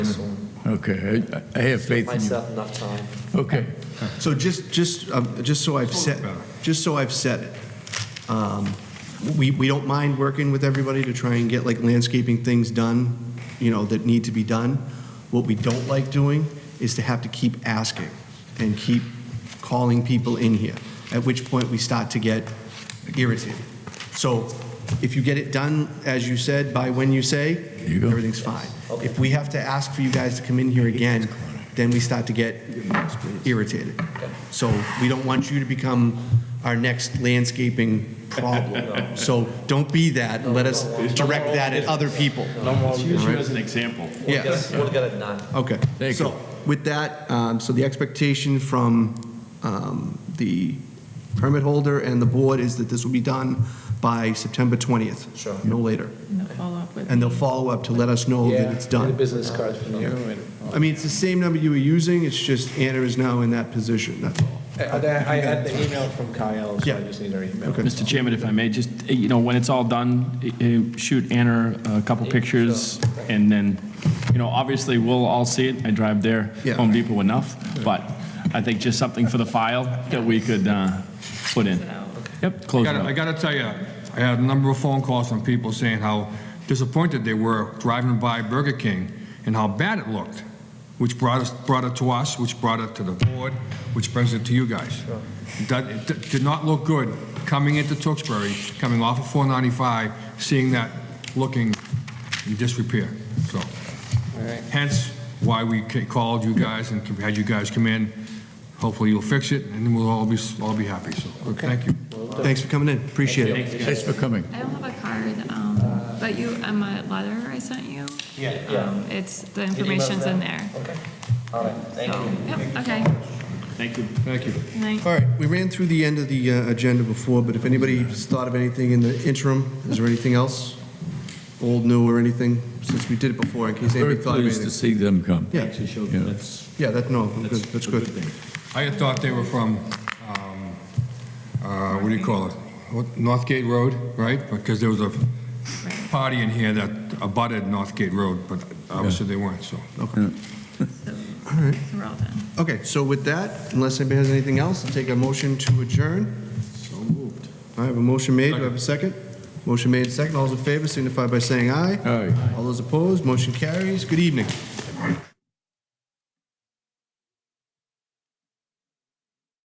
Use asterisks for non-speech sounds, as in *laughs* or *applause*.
Okay, I- I have faith in you. myself enough time. Okay, So just, just, um, just so I've said, just so I've said it, um, we, we don't mind working with everybody to try and get like landscaping things done, you know, that need to be done. What we don't like doing is to have to keep asking and keep calling people in here, at which point we start to get irritated. So if you get it done, as you said, by when you say, you go. everything's fine. If we have to ask for you guys to come in here again, then we start to get irritated. So we don't want you to become our next landscaping *laughs* problem. So don't be that, and let us direct that at other people. Let's use you as an example. We'll get Yes. it- We'll get it done. Okay. Thank you. So with that, um, so the expectation from um, the permit holder and the board is that this will be done by September 20th. Sure. No later. And they'll follow up with. And they'll follow up to let us know that it's Get a done. business card from Yeah. you. I mean, it's the same number you were using, it's just Anna is now in that position, that's all. I I had the email from Kyle, so Yeah. I just need her email. Okay. Mr. Chairman, if I may, just, eh, you know, when it's all done, eh, eh, shoot Anna a couple pictures, and then, you know, obviously, we'll all see it. I drive there, Yeah. Home Depot enough, but I think just something for the file that we could uh, put in. Yep, close it gotta- I up. gotta tell you, I had a number of phone calls from people saying how disappointed they were driving by Burger King and how bad it looked, which brought us, brought it to us, which brought it to the board, which brings it to you guys. That, it d- did not look good coming into Tewksbury, coming off of 495, seeing that looking in disrepair, so. Hence, why we ca- called you guys and had you guys come in. Hopefully you'll fix it, and then we'll all be, s- all be happy, so, thank you. Thanks for coming in, appreciate it. thanks for coming. I don't have a card, um, but you, on my letter I sent you. um, It's, the information's in there. Okay. All right, thank So, you. yep, okay. Thank you. Thank you. Good night. All right, we ran through the end of the uh, agenda before, but if anybody's thought of anything in the interim, is there anything else? Old, new, or anything, since we did it before, in case Very anybody thought of pleased to anything? see them come. Yeah, Yeah. yeah, that, no, I'm good, that's good. I had thought they were from, um, uh, what do you call it? What- Northgate Road, right? Because there was a party in here that abutted Northgate Road, but obviously they weren't, so. So so we're all done. Okay, so with that, unless anybody has anything else, I'll take a motion to adjourn. So moved. I have a motion made, do I have a second? Motion made, second, all those in favor signify by saying aye. Aye. All those opposed, motion carries, good evening.